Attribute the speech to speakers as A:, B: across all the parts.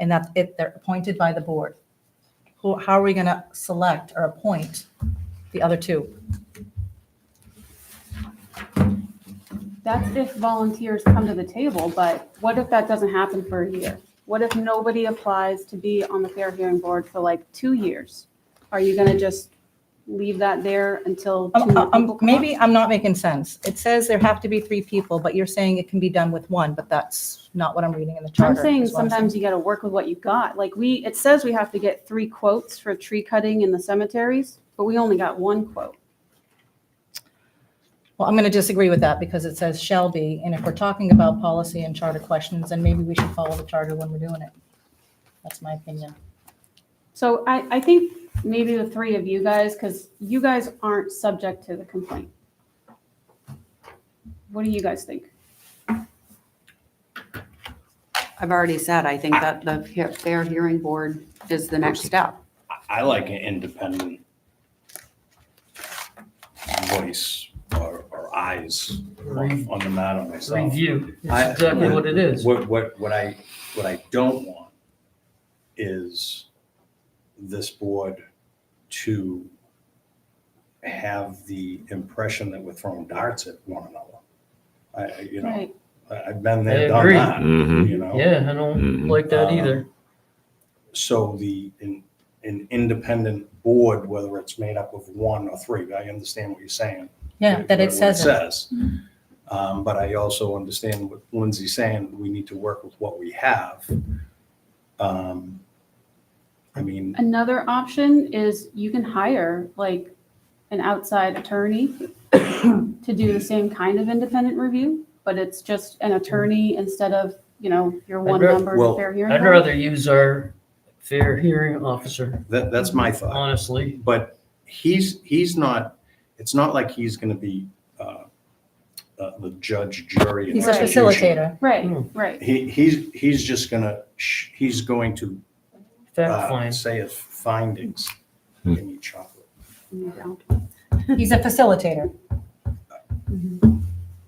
A: and that if they're appointed by the board. Who, how are we going to select or appoint the other two?
B: That's if volunteers come to the table, but what if that doesn't happen for a year? What if nobody applies to be on the Fair Hearing Board for like two years? Are you gonna just leave that there until two
A: Um,
B: more
A: um,
B: people come?
A: Maybe I'm not making sense. It says there have to be three people, but you're saying it can be done with one, but that's not what I'm reading in the
B: I'm
A: charter.
B: saying
A: is what I'm
B: sometimes you gotta work with what you got. Like we, it says we have to get three quotes for tree cutting in the cemeteries, but we only got one quote.
A: Well, I'm going to disagree with that because it says shall be, and if we're talking about policy and charter questions, then maybe we should follow the charter when we're doing it. That's my opinion.
B: So I, I think maybe the three of you guys, because you guys aren't subject to the complaint. What do you guys think?
C: I've already said, I think that the he- Fair Hearing Board is the next step.
D: I- I like an independent voice or, or eyes on on the matter myself.
E: Review,
D: I-
E: That's exactly what it is.
D: What, what, what I, what I don't want is this board to have the impression that we're throwing darts at one another. I- I, you know,
B: Right.
D: I- I've been
E: I
D: there, done
E: agree.
D: that,
F: Mhm.
D: you know?
E: Yeah, I don't
F: Mhm.
E: like that
D: Uh,
E: either.
D: So the, an, an independent board, whether it's made up of one or three, I understand what you're saying.
A: Yeah, that
D: what
A: it says it.
D: says. Um, but I also understand what Lindsay's saying, we need to work with what we have. Um, I mean,
B: Another option is you can hire like an outside attorney to do the same kind of independent review, but it's just an attorney instead of, you know, your one
E: ra-
B: member of
D: Well,
B: the fair hearing.
E: I'd
B: board.
E: rather use our fair hearing officer,
D: that, that's my thought,
E: honestly.
D: but he's, he's not, it's not like he's gonna be, uh, uh, the judge, jury. and
A: He's a
B: Right.
D: executioner.
A: facilitator.
B: Right,
E: Hmm.
B: right.
D: He, he's, he's just gonna, sh- he's going to,
E: Fact
D: uh,
E: find.
D: say his findings.
F: Hmm.
D: Give me chocolate.
A: He's a facilitator
B: Mm-hmm.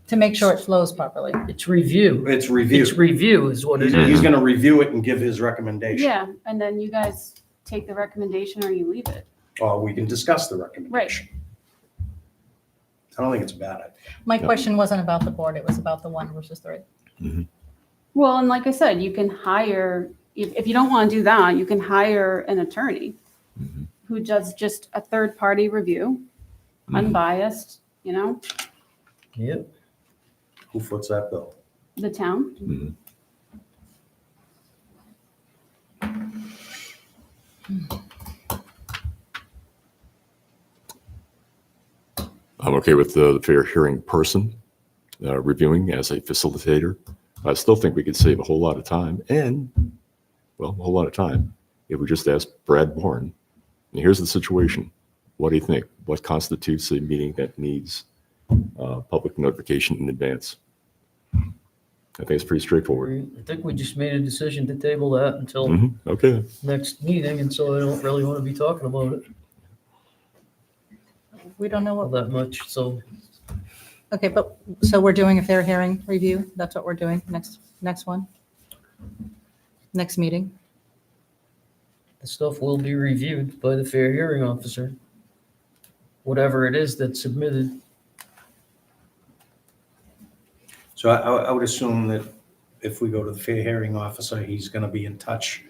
A: to make sure it flows properly.
E: It's review.
D: It's review. Mm-hmm.
E: It's review is what
D: He's,
E: it
F: Hmm.
D: he's
E: is.
D: gonna review it and give his recommendation.
B: Yeah, and then you guys take the recommendation or you leave it.
D: or we can discuss the recommendation. I don't think it's a bad idea.
A: My
F: Yeah.
A: question wasn't about the board, it was about the one versus three.
B: Well, and like I said, you can hire, if, if you don't want to do that, you can hire an attorney
E: Mm-hmm.
F: Mhm.
B: who does just a third party review,
E: Mm-hmm.
F: Mhm.
B: unbiased, you know,
E: Yep.
D: Who foots that bill?
B: the town.
F: Mhm. I'm okay with the the fair hearing person uh, reviewing as a facilitator. I still think we could save a whole lot of time and, well, a whole lot of time if we just ask Brad Bourne, and here's the situation. What do you think? What constitutes a meeting that needs uh, public notification in advance? I think it's pretty straightforward.
E: I think we just made a decision to table that until
F: Mhm, Okay.
E: next meeting, and so I don't really want to be talking about it
A: We don't know
E: all
A: what,
E: that much, so.
A: okay, but, so we're doing a fair hearing review? That's what we're doing, next, next one? Next meeting?
E: The stuff will be reviewed by the fair hearing officer. Whatever it is that's submitted,
D: So I, I would assume that if we go to the fair hearing officer, he's gonna be in touch.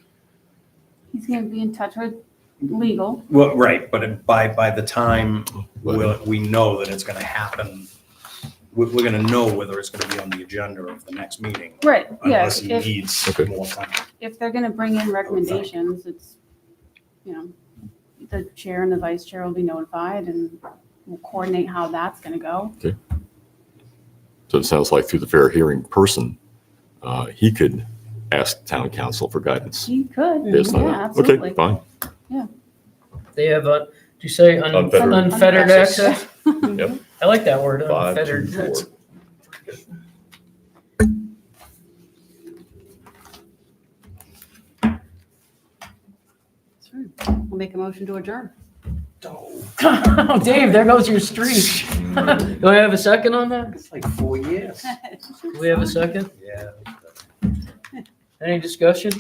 B: He's going to be in touch with
D: Mm-hmm.
B: legal.
D: Well, right, but by, by the time
F: Well-
D: we'll, we know that it's gonna happen, we're, we're gonna know whether it's gonna be on the agenda of the next meeting.
B: Right, yeah.
D: Unless he
B: If,
D: needs
F: Okay.
D: more time.
B: if they're going to bring in recommendations, it's, you know, the chair and the vice chair will be notified and we'll coordinate how that's going to go.
F: So it sounds like through the fair hearing person, uh, he could ask town council for guidance.
B: He could,
F: Based on
B: yeah,
F: that. Okay,
B: absolutely.
F: fine.
E: they have a, do you say un-
F: Unfettered.
E: unfettered access?
F: Yep.
E: I like that word,
F: Five,
E: unfettered.
F: two,
E: That's-
F: four.
C: We'll make a motion to adjourn.
E: Dave, there goes your streak. Do I have a second on that?
D: It's like four years.
E: Do we have a second?
D: Yeah.
E: Any discussion?